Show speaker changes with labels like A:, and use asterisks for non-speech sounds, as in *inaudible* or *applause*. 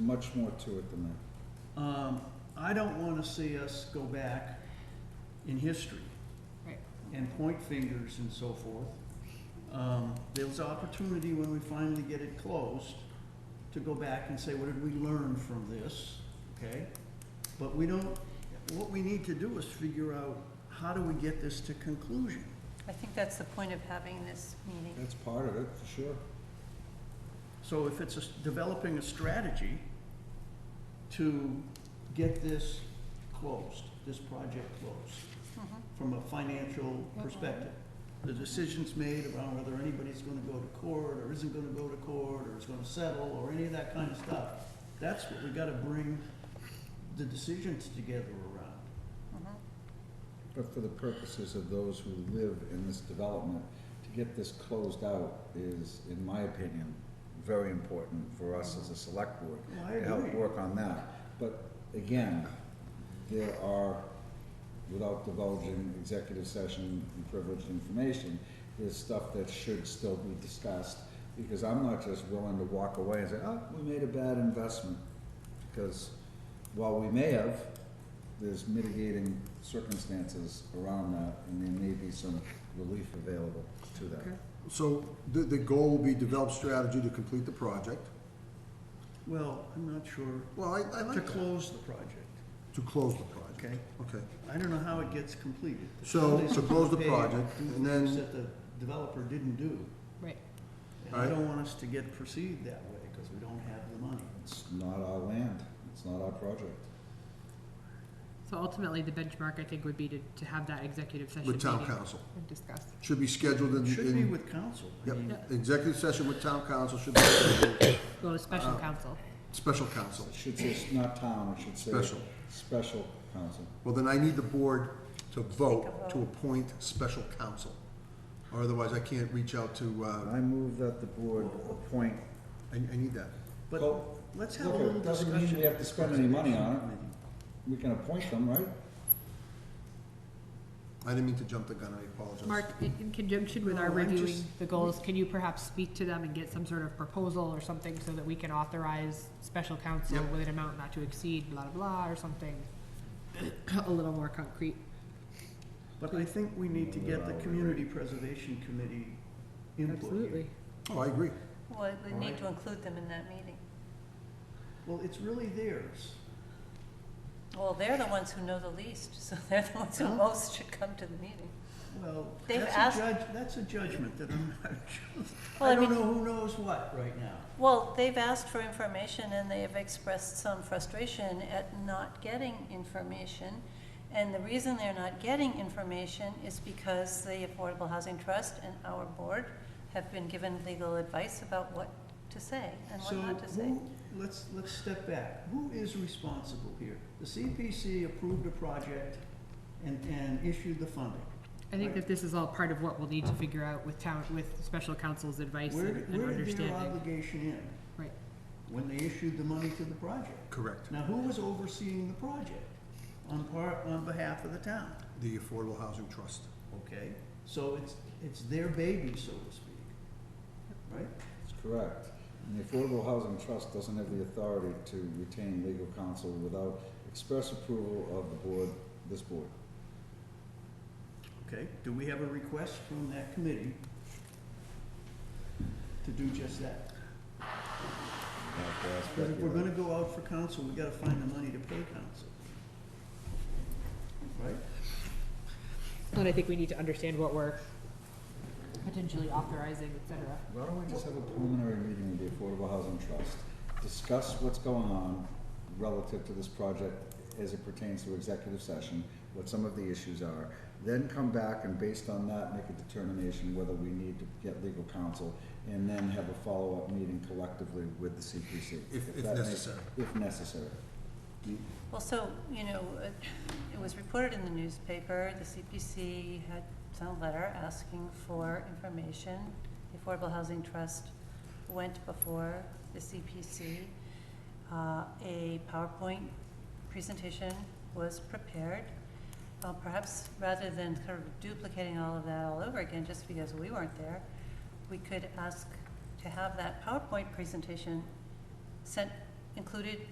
A: much more to it than that.
B: Um, I don't wanna see us go back in history
C: Right.
B: and point fingers and so forth. Um, there's opportunity when we finally get it closed to go back and say, what did we learn from this, okay? But we don't, what we need to do is figure out, how do we get this to conclusion?
C: I think that's the point of having this meeting.
A: That's part of it, for sure.
B: So if it's a s- developing a strategy to get this closed, this project closed,
C: Mm-hmm,
B: from a financial perspective, the decisions made about whether anybody's gonna go to court, or isn't gonna go to court, or is gonna settle, or any of that kind of stuff, that's what we gotta bring the decisions together around.
C: mm-hmm.
A: But for the purposes of those who live in this development, to get this closed out is, in my opinion, very important for us as a select board.
B: Well, I
A: To help
B: agree.
A: work on that. But again, there are, without divulging executive session and privileged information, there's stuff that should still be discussed. Because I'm not just willing to walk away and say, oh, we made a bad investment. Because while we may have, there's mitigating circumstances around that, and there may be some relief available to that.
D: So the, the goal will be develop strategy to complete the project.
B: Well, I'm not sure,
D: Well, I, I
B: to
D: like that.
B: close the project,
D: To close the project.
B: okay?
D: Okay.
B: I don't know how it gets completed.
D: So, to close the
B: There's
D: project, and then-
B: things That the developer didn't do.
C: Right.
B: And I
D: Alright.
B: don't want us to get perceived that way, because we don't have the money.
A: It's not our land, it's not our project.
E: So ultimately, the benchmark, I think, would be to, to have that executive session.
D: With town
E: meeting
D: council.
E: And discuss.
D: Should be scheduled in,
B: It should be
D: in,
B: with council. I
D: yep,
B: mean,
D: executive session with town council should be scheduled,
E: Go to special
B: Uh,
E: counsel.
D: special council.
A: It should say, it's not town, it should say.
D: Special.
A: Special counsel.
D: Well, then I need the board to vote
C: vote.
D: to appoint special counsel. Or otherwise I can't reach out to, uh,
A: I move that the board appoint,
D: I, I need that.
B: But
A: Well,
B: let's have a
A: look,
B: little
A: it doesn't mean
B: discussion.
A: we have to spend any money on it, we can appoint them, right?
D: I didn't mean to jump the gun, I apologize.
E: Mark, in in conjunction with our
B: No, I'm just-
E: reviewing the goals, can you perhaps speak to them and get some sort of proposal or something so that we can authorize special counsel
D: Yep.
E: with an amount not to exceed blah, blah, blah, or something a little more concrete?
B: But I think we need to get the Community Preservation Committee input here.
E: Absolutely.
D: Oh, I agree.
C: Well, we need to include them in that meeting.
B: Well, it's really theirs.
C: Well, they're the ones who know the least, *laughs* so they're the ones who
B: Huh?
C: most should come to the meeting.
B: Well,
C: They've
B: that's
C: asked-
B: a judge, that's a judgment that I'm not *laughs* sure.
C: Well,
B: I
C: I
B: don't
C: mean-
B: know who knows what right now.
C: Well, they've asked for information and they have expressed some frustration at not getting information. And the reason they're not getting information is because the Affordable Housing Trust and our board have been given legal advice about what to say and what
B: So
C: not to say.
B: who, let's, let's step back. Who is responsible here? The CPC approved a project and, and issued the funding.
E: I think that this is all part of what we'll need to figure out with town, with special counsel's advice
B: Where,
E: and
B: did-
E: and
B: where did their
E: understanding.
B: obligation end?
E: Right.
B: When they issued the money to the project.
D: Correct.
B: Now, who was overseeing the project on part, on behalf of the town?
D: The Affordable Housing Trust.
B: Okay, so it's, it's their baby, so to speak, right?
A: That's correct. And the Affordable Housing Trust doesn't have the authority to retain legal counsel without express approval of the board, this board.
B: Okay, do we have a request from that committee to do just that?
A: I have to ask
B: Because if we're
A: Becky
B: gonna
A: that.
B: go out for council, we gotta find the money to pay council. Right?
E: And I think we need to understand what we're potentially authorizing, et cetera.
A: Why don't we just have a preliminary meeting with the Affordable Housing Trust, discuss what's going on relative to this project as it pertains to executive session, what some of the issues are, then come back and based on that, make a determination whether we need to get legal counsel, and then have a follow-up meeting collectively with the CPC.
D: If- if
A: that makes-
D: necessary.
A: If necessary.
C: Well, so, you know, it it was reported in the newspaper, the CPC had sent a letter asking for information. The Affordable Housing Trust went before the CPC. Uh, A PowerPoint presentation was prepared. Uh, Perhaps rather than kind of duplicating all of that all over again, just because we weren't there, we could ask to have that PowerPoint presentation sent included